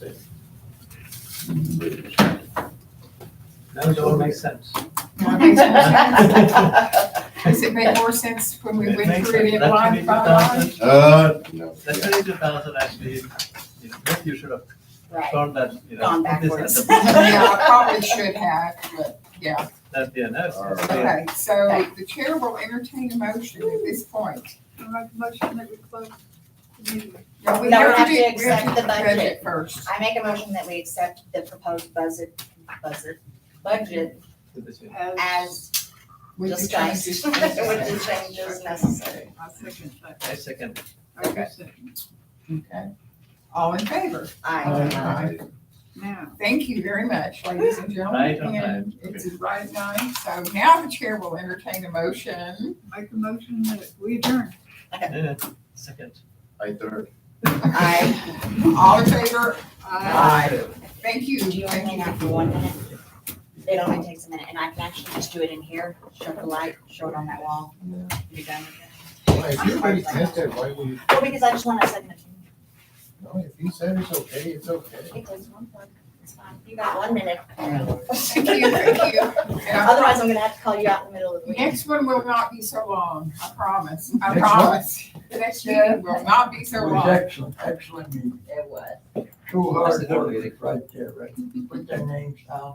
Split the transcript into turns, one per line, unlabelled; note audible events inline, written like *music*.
That all makes sense.
Well, it makes more sense. Does it
It
make more sense when *laughs* we went
makes
through
sense.
it
That
line by line? *laughs*
22,000
Uh, no.
That twenty-two thousand actually, you know, maybe you should have
Right.
thought that, you know.
Gone
put this at the-
*laughs* Yeah, I probably should have, but yeah.
That, yeah, that's. that's the-
Okay, so the chair will entertain a motion at this point.
I make a motion that we close the meeting.
No,
No, we have
do-
to
we have
accept
to
the
judge
budget.
it First.
I make a motion that we accept the proposed budget, budget, budget
this is-
as
With the
discussed,
changes.
with *laughs* the changes necessary.
I second that.
I second.
I do
Okay.
second.
Okay. All in favor?
Aye.
Now,
Thank you very much, ladies and gentlemen.
Right on
And
time.
It's right at nine, so now the chair will entertain a motion.
make a motion that we adjourn.
Yeah, Second.
I third.
Aye.
All in favor?
Aye.
Thank you.
Do you want to
Thank
hang
you.
out for one minute? It only takes a minute, and I can actually just do it in here, show the light, show it on that wall. Be done with it.
Why, if you already said that, why would you,
Well, because I just want a second.
no, if you said it's okay, it's okay.
It takes one, point. it's fine, you got one minute.
Thank you, thank you. And I
Otherwise, I'm gonna have to call you out in the middle of the
The
week.
Next one will not be so long, I promise, I
Next what?
promise. The next meeting will not be so
was
long.
excellent, excellent meeting.
It was.
Two
That's a
hard
good meeting.
workers right there, right? Put their names down.